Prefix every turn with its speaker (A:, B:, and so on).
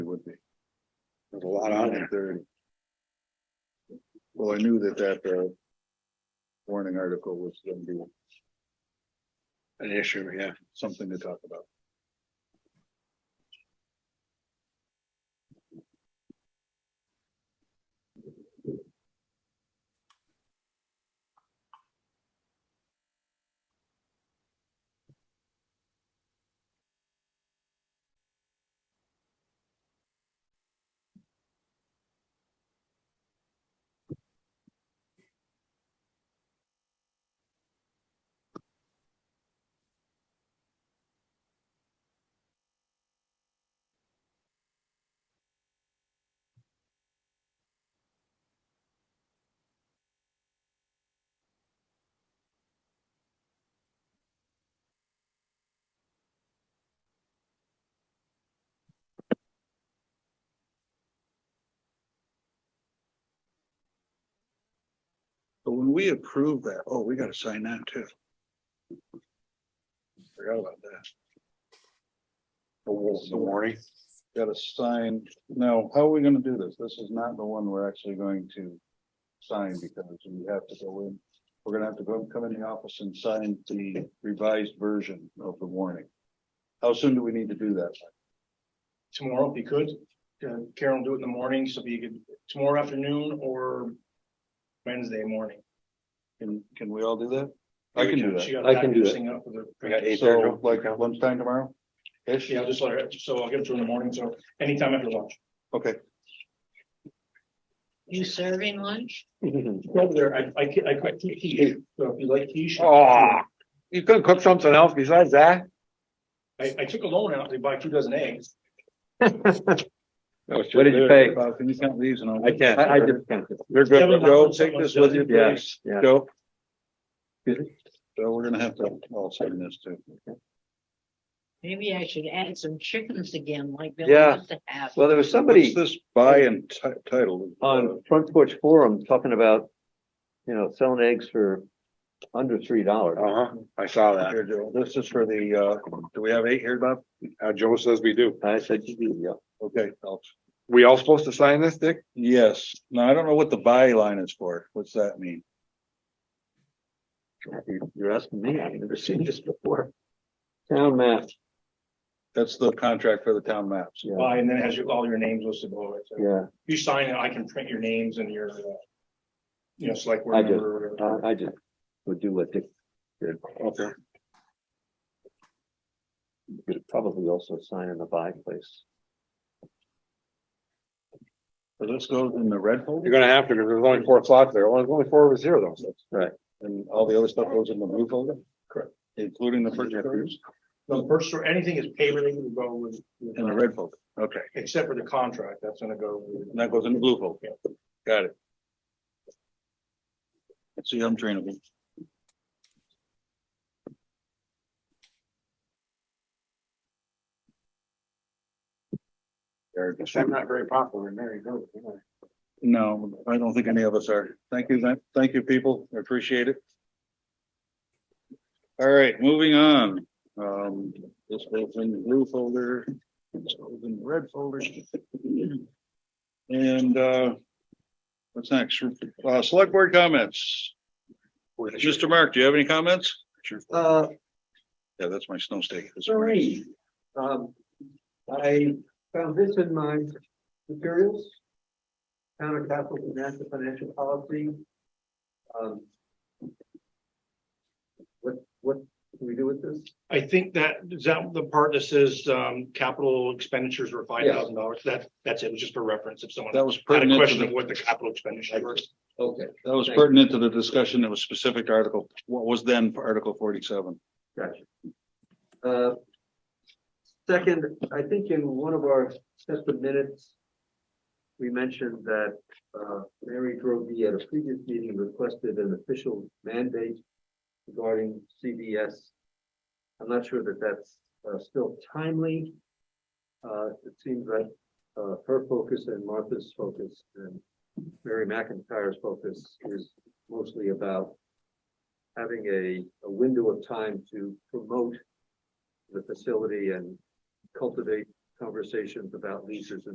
A: lot on it.
B: Thirty. Well, I knew that that, uh. Warning article was gonna be
A: An issue, yeah.
B: something to talk about.
A: But when we approve that, oh, we gotta sign that too. Forgot about that.
B: The
A: The warning,
B: Gotta sign, now, how are we gonna do this? This is not the one we're actually going to sign because we have to go in. We're gonna have to go come in the office and sign the revised version of the warning. How soon do we need to do that?
C: tomorrow if you could. Uh, Carol, do it in the morning, so if you could, tomorrow afternoon or Wednesday morning.
B: Can, can we all do that? I can do
C: She
B: that.
C: got
D: I can do that.
C: packaging up with
A: We got
C: her.
A: eight there,
B: So
A: no?
B: like lunchtime tomorrow? Ish?
C: Yeah, I'll just let her, so I'll give it to her in the morning, so anytime after lunch.
B: Okay,
E: You serving lunch?
C: Over there, I, I, ca- I quite keep quiche, so if you like quiche.
D: Oh, you couldn't cook something else besides that?
C: I, I took a loan out to buy two dozen eggs.
D: What did you pay?
B: Bob, can you count these and all?
D: I can't. I just can't. You're
C: Seven
D: good.
B: Joe,
C: dollars,
B: take this
C: something
B: with you,
C: like that.
B: please.
D: Yeah.
B: Joe? So we're gonna have to all sign this too.
E: Maybe I should add some chickens again like they
D: Yeah.
E: used to have.
D: Well, there was
B: What's
D: somebody
B: this by and ti- title?
D: on Front Porch Forum talking about, you know, selling eggs for under three dollars.
A: Uh-huh, I saw that.
B: Here, Joe, this is for the, uh, do we have eight here, Bob?
A: Uh, Joe says we do.
D: I said, yeah.
B: Okay, I'll-
A: We all supposed to sign this, Dick?
B: yes. Now, I don't know what the by line is for. What's that mean?
D: You're asking me. I've never seen this before. Town map.
B: That's the contract for the town maps.
D: Yeah,
C: Buy, and then it has your- all your names listed below it. So
D: yeah.
C: You sign it, I can print your names and your, uh, you know, select
D: I
C: where
D: do.
C: number. or whatever.
D: I, I just would do what Dick did.
A: Okay.
D: You Could probably also sign in the buy place.
B: So this goes in the red
A: You're
B: folder
A: gonna have to, because there's only four slots there. Only, only four of us here though. so.
B: and all the other stuff goes in the blue folder?
C: Correct.
B: Including the purchase orders
C: No, The first, or anything is paid related to go with. with-
B: in the red folder. Okay,
C: Except for the contract, that's gonna go. with-
B: and that goes in the blue folder. Got it. See, I'm trainable. There, just-
A: I'm not very popular in Mary Grove. am I?
B: No, I don't think any of us are. Thank you, thank- thank you, people. I appreciate it. All right, moving on. Um, this goes in the blue folder, this goes in the red folder. And, uh, what's next? Uh, select board comments. Mr. Mark, do you have any comments?
F: Uh,
B: Yeah, that's my snow stake. That's great.
F: three. Um, I found this in my materials. Town of Castle and National Financial Policy. Um. What, what can we do with this?
C: I think that, is that the part that says, um, capital expenditures were five thousand dollars? That, that's it, It was just for reference, if someone
B: That was
C: had a
B: pertinent to
C: question of
B: the,
C: what the capital expenditures were.
F: Okay.
B: that was pertinent to the discussion. It was specific to article, what was then Article forty-seven.
F: Gotcha. Uh, Second, I think in one of our sets of minutes, we mentioned that uh, Mary Drobie at a previous meeting requested an official mandate regarding CBS. I'm not sure that that's uh, still timely. Uh, It seems like uh, her focus and Martha's focus and Mary McIntyre's focus is mostly about having a, a window of time to promote the facility and cultivate conversations about leases and